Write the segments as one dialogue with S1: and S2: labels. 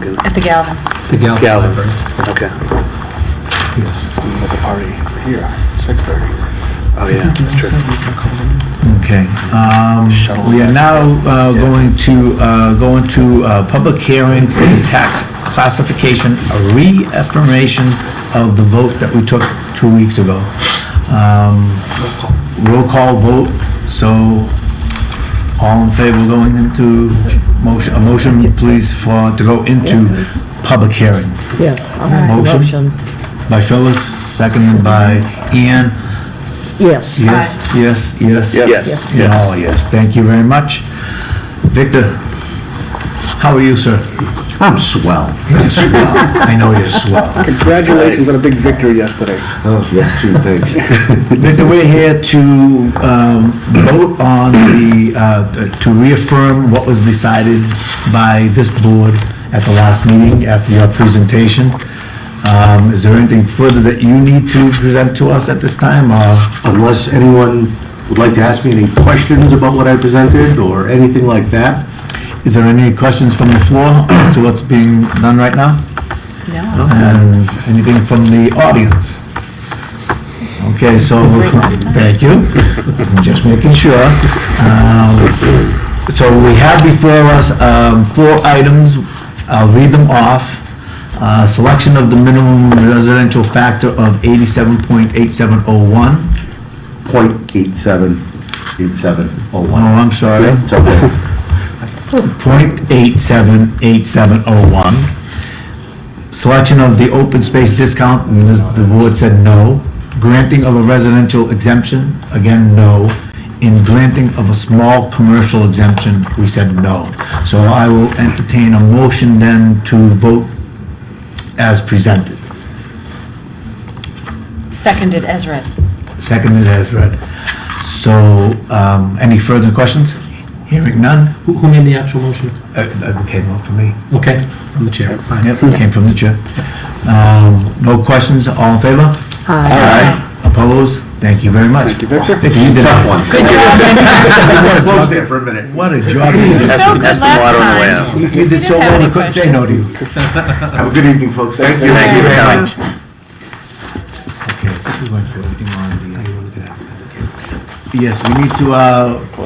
S1: do?
S2: At the Galvin.
S3: The Galvin
S1: Galvin.
S3: Library.
S1: Okay.
S4: Yes.
S1: We have a party here, 6:30. Oh, yeah, that's true.
S4: Okay. um, We are now uh, going to uh, go into uh, public hearing for the tax classification, a reaffirmation of the vote that we took two weeks ago. Um, Roll call vote, so all in favor going into motion, a motion please for, to go into public hearing.
S5: Yeah. I'll make a
S4: Motion? By Phyllis, seconded by Ian.
S5: Yes.
S4: Yes, yes, yes.
S1: Yes.
S4: Yeah, oh, yes, thank you very much. Victor, how are you, sir?
S6: I'm swell.
S4: You're swell. I know you're swell.
S1: Congratulations on a big victory yesterday.
S6: Oh, yeah, gee, thanks.
S4: Victor, we're here to um, vote on the, uh, to reaffirm what was decided by this board at the last meeting after your presentation. Um, Is there anything further that you need to present to us at this time, or?
S6: Unless anyone would like to ask me any questions about what I presented or anything like that?
S4: Is there any questions from the floor as to what's being done right now?
S2: No.
S4: And anything from the audience? Okay, so, thank you. I'm Just making sure. Um, So we have before us um, four items. I'll read them off. Uh, Selection of the minimum residential factor of 87.8701.
S6: Point eight seven, eight seven oh
S4: Oh,
S6: one.
S4: I'm sorry.
S6: It's okay.
S4: .878701. Selection of the open space discount, and this- the board said no. Granting of a residential exemption, again, no. In granting of a small commercial exemption, we said no. So I will entertain a motion then to vote as presented.
S2: Seconded as read.
S4: Seconded as read. So, um, any further questions? Hearing none?
S3: Who- Who made the actual motion?
S4: Uh, That came up for me.
S3: Okay, from the chair, fine.
S4: Yep, came from the chair. Um, No questions, all in favor? Aye. Opposed? Thank you very much. Thank you, Victor. you did
S6: Tough
S4: a-
S6: one. Good job. Close there for a minute.
S4: What a job you did.
S2: So good
S7: that's the
S2: last
S7: water on the way
S2: time.
S7: out.
S4: You- You did
S2: didn't
S4: so
S2: have
S4: well, we
S2: any
S4: couldn't say no to you.
S6: Have a good evening, folks. Thank you.
S7: Thank you very much.
S4: Okay, we went through everything on the... Yes, we need to uh,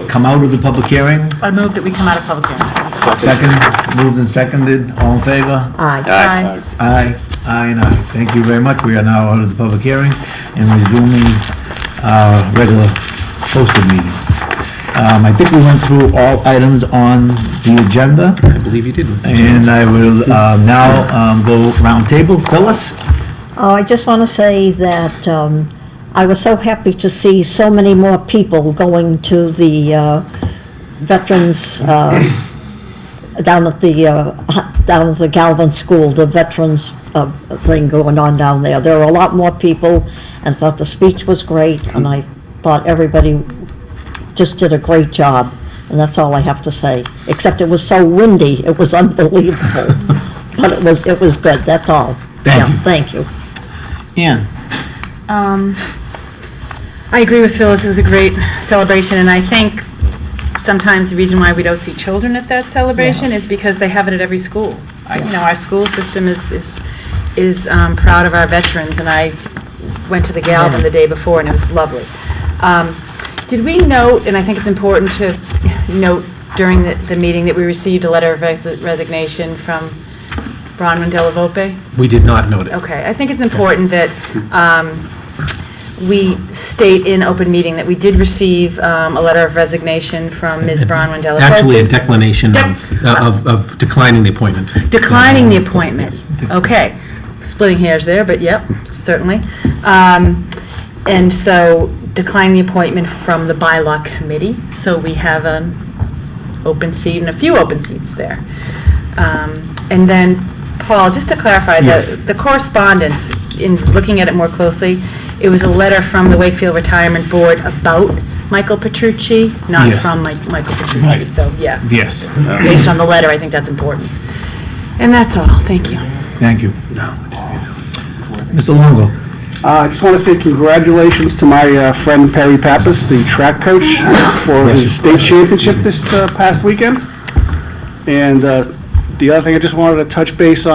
S4: come out of the public hearing.
S2: I move that we come out of public hearing.
S4: Second, moved and seconded, all in favor?
S5: Aye.
S2: Aye.
S4: Aye, aye and aye. Thank you very much. We are now out of the public hearing and resuming our regular posted meeting. Um, I think we went through all items on the agenda,
S3: I believe you did, Mr. Chair.
S4: and I will uh, now um, go roundtable. Phyllis?
S5: Oh, I just want to say that um, I was so happy to see so many more people going to the uh, veterans uh, down at the, uh, down at the Galvin School, the veterans uh, thing going on down there. There were a lot more people, and I thought the speech was great, and I thought everybody just did a great job, and that's all I have to say. Except it was so windy, it was unbelievable. But it was, it was good, that's all.
S4: Thank
S5: Yeah,
S4: you.
S5: Thank you.
S4: Ann?
S2: Um, I agree with Phyllis, it was a great celebration, and I think sometimes the reason why we don't see children at that celebration is because they have it at every school. I- You know, our school system is, is, is um, proud of our veterans, and I went to the Galvin the day before, and it was lovely. Um, Did we note, and I think it's important to note during the, the meeting, that we received a letter of res- resignation from Bronwyn Delavope?
S3: We did not note it.
S2: Okay, I think it's important that um, we state in open meeting that we did receive um, a letter of resignation from Ms. Bronwyn Delacorte.
S3: Actually, a declination of, uh,
S2: Dec-
S3: of of declining the appointment.
S2: Declining the appointment. Okay. Splitting hairs there, but yep, certainly. Um, And so declining the appointment from the bylaw committee, so we have an open seat and a few open seats there. Um, And then, Paul, just to clarify,
S4: Yes.
S2: the the correspondence, in looking at it more closely, it was a letter from the Wakefield Retirement Board about Michael Petrucci, not
S4: Yes.
S2: from Mi- Michael Petrucci,
S4: Right.
S2: so, yeah
S4: Yes.
S2: based on the letter, I think that's important. And that's all, thank you.
S4: Thank you. Mr. Longo?
S8: Uh, I just want to say congratulations to my uh, friend Perry Pappas, the track coach, for his state championship this uh, past weekend. And uh, The other thing I just wanted to touch base on.